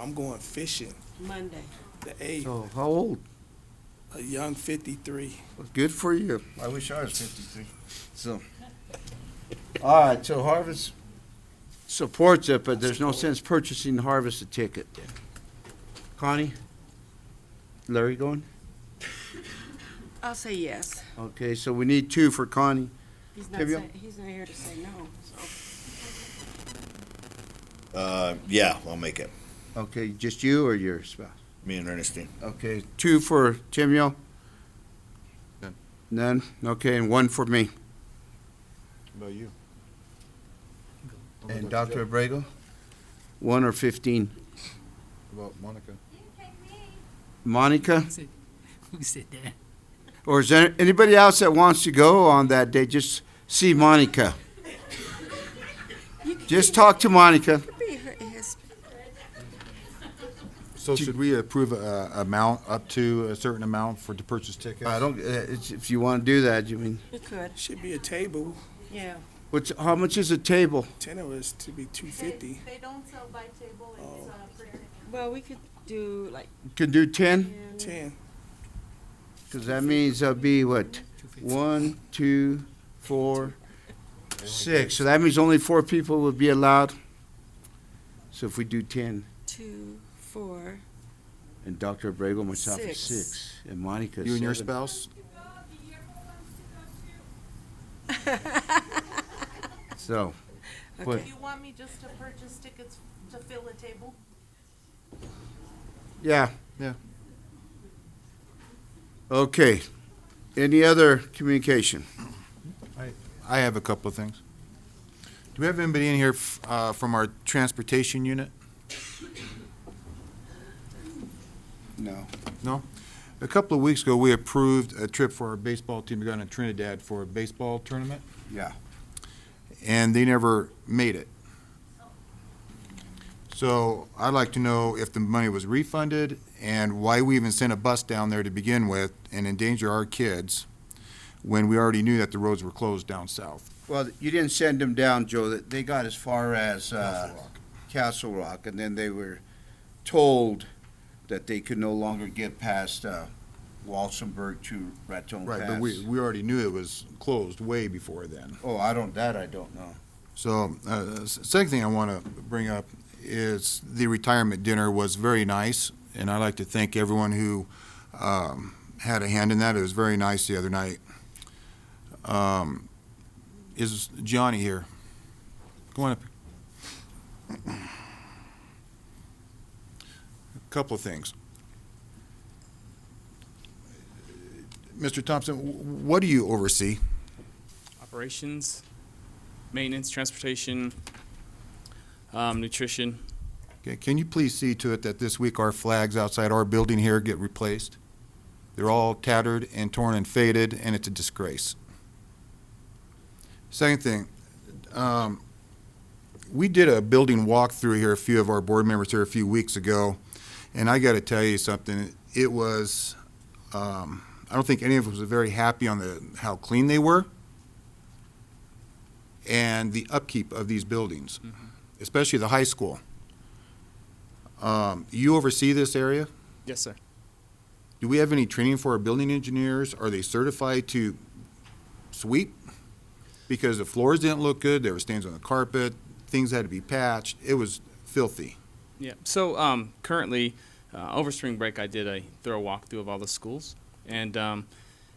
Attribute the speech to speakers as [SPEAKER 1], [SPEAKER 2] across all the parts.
[SPEAKER 1] I'm going fishing.
[SPEAKER 2] Monday.
[SPEAKER 1] The eighth,
[SPEAKER 3] Oh, how old?
[SPEAKER 1] a young fifty-three.
[SPEAKER 3] Good for you.
[SPEAKER 4] I wish I was fifty-three. So, all right. So harvest.
[SPEAKER 3] Supports it, but there's no sense purchasing Harvest a ticket. Connie? Larry going?
[SPEAKER 2] I'll say yes.
[SPEAKER 3] Okay, so we need two for Connie.
[SPEAKER 2] He's not
[SPEAKER 3] Tibia?
[SPEAKER 2] saying, he's not here to say no, so.
[SPEAKER 4] Uh, yeah, I'll make it.
[SPEAKER 3] Okay, just you or your spouse?
[SPEAKER 4] Me and Ernestine.
[SPEAKER 3] Okay, two for Timio?
[SPEAKER 5] None.
[SPEAKER 3] None? Okay, and one for me.
[SPEAKER 5] About you?
[SPEAKER 3] And Dr. Abrego? One or fifteen.
[SPEAKER 5] About Monica?
[SPEAKER 3] Monica?
[SPEAKER 6] Who said that?
[SPEAKER 3] Or is there anybody else that wants to go on that day? Just see Monica. Just talk to Monica.
[SPEAKER 2] Be her- his-
[SPEAKER 5] So should we approve a a amount, up to a certain amount for, to purchase tickets?
[SPEAKER 3] I don't, uh, it's- if you want to do that, you mean,
[SPEAKER 2] He could,
[SPEAKER 1] Should be a table.
[SPEAKER 2] yeah.
[SPEAKER 3] what's, how much is a table?
[SPEAKER 1] Ten of us to be two fifty.
[SPEAKER 7] They don't sell by table, it's, uh, per ticket.
[SPEAKER 2] Well, we could do like
[SPEAKER 3] Can do ten?
[SPEAKER 2] ten.
[SPEAKER 1] Ten.
[SPEAKER 3] Because that means there'll be what? One, two, four, six. So that means only four people will be allowed. So if we do ten,
[SPEAKER 2] two, four.
[SPEAKER 3] and Dr. Abrego, myself, is
[SPEAKER 2] Six.
[SPEAKER 3] six, and Monica is
[SPEAKER 5] You and your
[SPEAKER 3] seven.
[SPEAKER 5] spouse?
[SPEAKER 3] So, What?
[SPEAKER 2] Okay.
[SPEAKER 7] You want me just to purchase tickets to fill a table?
[SPEAKER 3] yeah.
[SPEAKER 5] Yeah.
[SPEAKER 3] Okay. Any other communication?
[SPEAKER 5] I have a couple of things. Do we have anybody in here f- uh, from our transportation unit?
[SPEAKER 3] No.
[SPEAKER 5] A couple of weeks ago, we approved a trip for our baseball team to go down to Trinidad for a baseball tournament.
[SPEAKER 3] Yeah.
[SPEAKER 5] And they never made it. So I'd like to know if the money was refunded and why we even sent a bus down there to begin with and endanger our kids when we already knew that the roads were closed down south.
[SPEAKER 3] Well, you didn't send them down, Joe. That They got as far as uh, Castle Rock, and then they were told that they could no longer get past uh, Walsenburg to Raton
[SPEAKER 5] Right,
[SPEAKER 3] Pass.
[SPEAKER 5] but we, we already knew it was closed way before then.
[SPEAKER 3] Oh, I don't, that I don't know.
[SPEAKER 5] So, uh, the s- second thing I want to bring up is the retirement dinner was very nice, and I'd like to thank everyone who um, had a hand in that. It was very nice the other night. Um, Is Johnny here? Go on up. A Couple of things. Mr. Thompson, wh- what do you oversee?
[SPEAKER 8] operations, maintenance, transportation, um, nutrition.
[SPEAKER 5] Okay, can you please see to it that this week our flags outside our building here get replaced? They're all tattered and torn and faded, and it's a disgrace. Second thing, um, we did a building walkthrough here, a few of our board members here a few weeks ago, and I gotta tell you something, it was, um, I don't think any of us was very happy on the, how clean they were and the upkeep of these buildings, especially the high school. Um, you oversee this area?
[SPEAKER 8] Yes, sir.
[SPEAKER 5] Do we have any training for our building engineers? Are they certified to sweep? Because the floors didn't look good, there were stains on the carpet, things had to be patched, it was filthy.
[SPEAKER 8] Yeah. So um, currently, uh, over spring break, I did a thorough walkthrough of all the schools and um,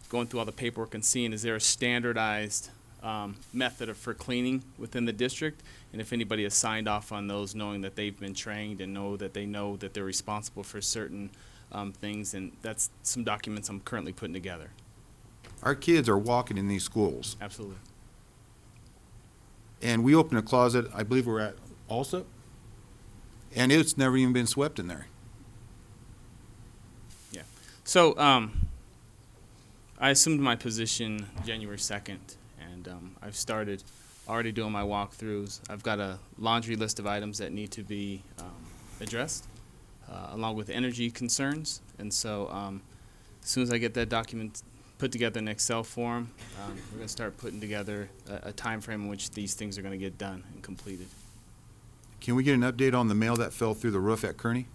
[SPEAKER 8] going through all the paperwork and seeing is there a standardized um, method of, for cleaning within the district, and if anybody has signed off on those, knowing that they've been trained and know that they know that they're responsible for certain um, things, and that's some documents I'm currently putting together.
[SPEAKER 5] Our kids are walking in these schools,
[SPEAKER 8] Absolutely.
[SPEAKER 5] and we opened a closet, I believe we're at Alsop, and it's never even been swept in there.
[SPEAKER 8] So, um, I assumed my position January 2nd, and um, I've started already doing my walkthroughs. I've got a laundry list of items that need to be um, addressed, uh, along with energy concerns. And so, um, as soon as I get that document put together in Excel form, um, we're going to start putting together a, a time frame in which these things are going to get done and completed.
[SPEAKER 5] Can we get an update on the mail that fell through the roof at Kearney?